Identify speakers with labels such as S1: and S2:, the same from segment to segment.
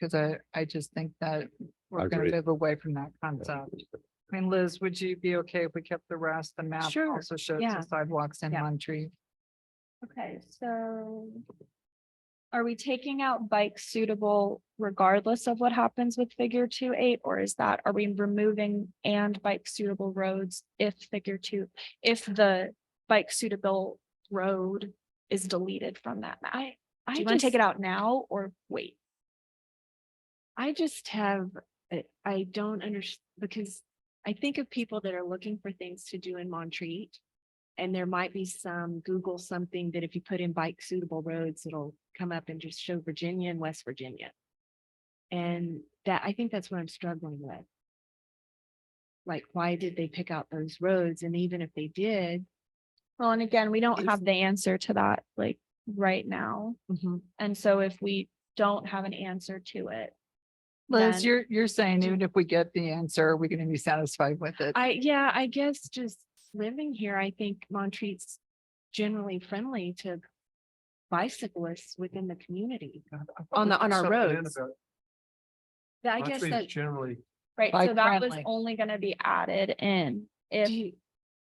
S1: Cause I, I just think that we're gonna
S2: Agreed.
S1: move away from that concept. I mean, Liz, would you be okay if we kept the rest? The map
S3: Sure,
S1: also shows
S3: yeah.
S1: the sidewalks in
S3: Yeah.
S1: Monterey.
S3: Okay, so. Are we taking out bike suitable regardless of what happens with figure two eight, or is that, are we removing and bike suitable roads if figure two? If the bike suitable road is deleted from that map?
S4: I,
S3: Do
S4: I
S3: you want to take it
S4: just-
S3: out now or wait?
S4: I just have, I- I don't understand, because I think of people that are looking for things to do in Montreat. And there might be some Google something that if you put in bike suitable roads, it'll come up and just show Virginia and West Virginia. And that, I think that's what I'm struggling with. Like, why did they pick out those roads? And even if they did.
S3: Well, and again, we don't
S4: Is-
S3: have the answer to that like right now. And so if we don't have an answer to it.
S1: Liz,
S3: then-
S1: you're, you're saying
S3: do-
S1: even if we get the answer, are we gonna be satisfied with it?
S4: I, yeah, I guess just living here, I think Montreat's generally friendly to bicyclists within the community.
S1: Uh,
S4: on the- on our roads. That I guess that,
S5: Generally,
S3: Right,
S1: Bike
S3: so that was
S1: friendly.
S3: only gonna be added in
S4: do
S3: if
S4: you-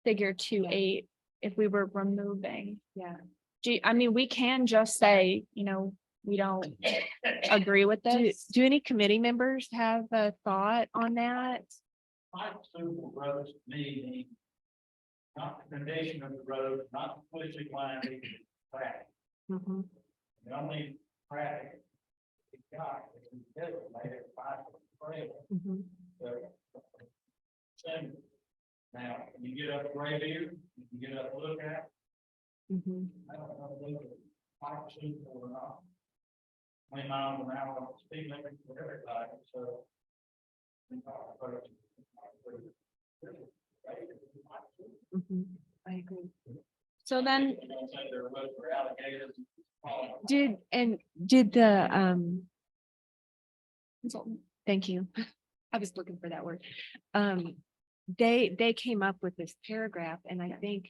S3: figure two
S4: Yeah.
S3: eight, if we were removing.
S4: yeah,
S3: Do, you- I mean, we can just say, you know, we don't agree with
S4: do,
S3: this.
S4: do any committee members have a thought on that?
S6: Bike suitable roads meaning not the condition of the road, not the pushing line, but the track.
S4: Mm-hmm,
S6: The only traffic we got is in the middle, later bicycle trail.
S4: mm-hmm,
S6: So, same. Now, when you get up Graybeard, you can get up Lookout,
S4: mm-hmm,
S6: I don't know whether bike suitable or not. Twenty miles an hour, speed limit for everybody, so. we talk about it.
S4: mm-hmm. I agree.
S3: So then,
S4: Did, and did the, um,
S3: consultant-
S4: thank you. I was looking for that word. Um, they, they came up with this paragraph and I think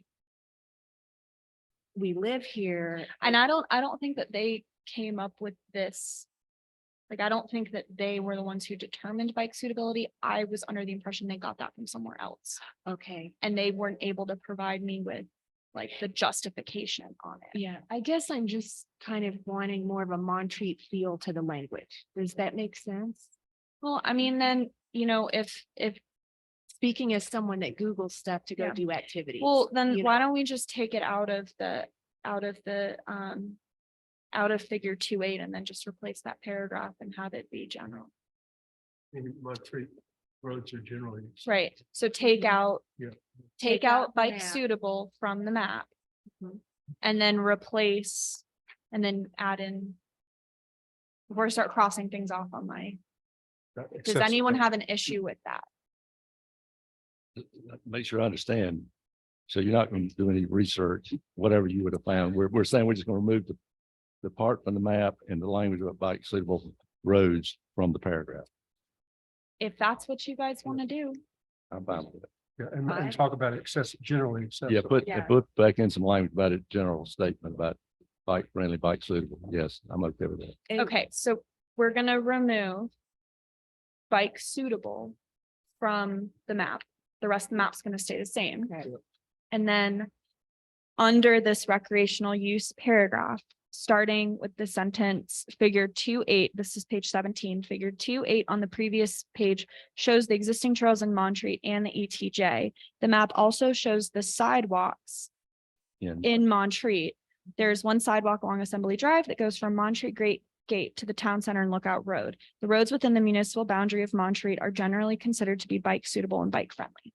S4: we live here.
S3: and I don't, I don't think that they came up with this. Like, I don't think that they were the ones who determined bike suitability. I was under the impression they got that from somewhere else.
S4: Okay.
S3: And they weren't able to provide me with like the justification on it.
S4: Yeah, I guess I'm just kind of wanting more of a Montreat feel to the language. Does that make sense?
S3: Well, I mean, then, you know, if, if
S4: Speaking as someone that Googles stuff to go
S3: Yeah.
S4: do activities.
S3: Well,
S4: you
S3: then
S4: know?
S3: why don't we just take it out of the, out of the, um, out of figure two eight and then just replace that paragraph and have it be general.
S5: in my tree, roads are generally.
S3: Right, so take out.
S5: Yeah.
S3: Take
S4: Mhm. Take out
S3: out
S4: the
S3: bike
S4: map.
S3: suitable from the map.
S4: Mhm.
S3: And then replace, and then add in. Before I start crossing things off on my,
S5: uh,
S3: does anyone have an issue with that?
S2: Make sure I understand. So you're not going to do any research, whatever you would have found. We're, we're saying we're just going to remove the, the part from the map and the language about bike suitable roads from the paragraph.
S3: If that's what you guys want to do,
S2: I'm fine with it.
S5: Yeah, and,
S4: Fine.
S5: and talk about access, generally
S2: Yeah,
S5: accessible.
S2: put,
S4: Yeah.
S2: put back in some language about it, general statement about bike friendly, bike suitable. Yes, I'm okay with that.
S4: And-
S3: okay, so we're gonna remove. Bike suitable from the map, the rest of the map's gonna stay the same.
S4: Okay.
S3: And then under this recreational use paragraph, starting with the sentence, figure two eight, this is page seventeen, figure two eight on the previous page shows the existing trails in Montreat and the ETJ. The map also shows the sidewalks
S2: In-
S3: in Montreat. There's one sidewalk along Assembly Drive that goes from Montreat Great Gate to the Town Center and Lookout Road. The roads within the municipal boundary of Montreat are generally considered to be bike suitable and bike friendly.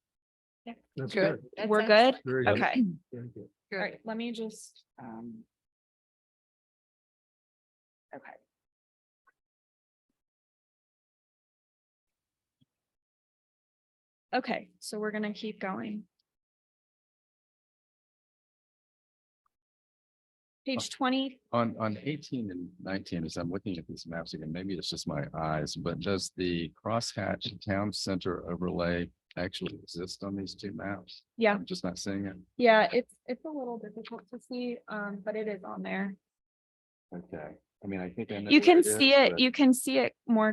S5: That's
S1: Good.
S5: good.
S4: That's
S3: We're good?
S5: Very good.
S3: Okay,
S5: Very good.
S3: all
S1: Good.
S3: right, let me just, um, Okay, so we're gonna keep going. Page twenty,
S7: On, on eighteen and nineteen, as I'm looking at these maps again, maybe it's just my eyes, but does the crosshatch town center overlay actually exist on these two maps?
S3: yeah,
S7: I'm just not seeing it.
S3: yeah, it's, it's a little difficult to see, um, but it is on there.
S7: Okay.
S2: I mean, I think I know.
S3: You
S2: where
S3: can
S2: is,
S3: see it,
S2: but-
S3: you can see it more